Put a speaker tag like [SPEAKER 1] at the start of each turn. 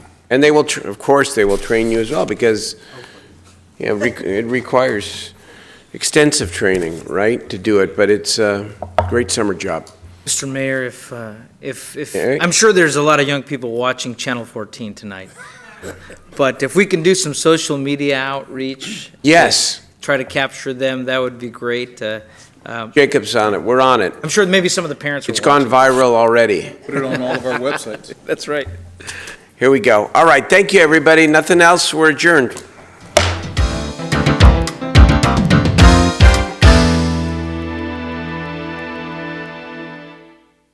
[SPEAKER 1] And they will, tr- of course, they will train you as well, because, you know, re- it requires extensive training, right, to do it, but it's a great summer job.
[SPEAKER 2] Mr. Mayor, if, uh, if, if,
[SPEAKER 1] Eric?
[SPEAKER 2] I'm sure there's a lot of young people watching Channel 14 tonight. But if we can do some social media outreach,
[SPEAKER 1] Yes,
[SPEAKER 2] try to capture them, that would be great. Uh, um,
[SPEAKER 1] Jacob's on it, we're on it.
[SPEAKER 2] I'm sure maybe some of the parents are
[SPEAKER 1] It's gone
[SPEAKER 2] watching.
[SPEAKER 1] viral already.
[SPEAKER 3] Put it on all of our websites.
[SPEAKER 2] That's right.
[SPEAKER 1] Here we go. All right, thank you, everybody. Nothing else, we're adjourned.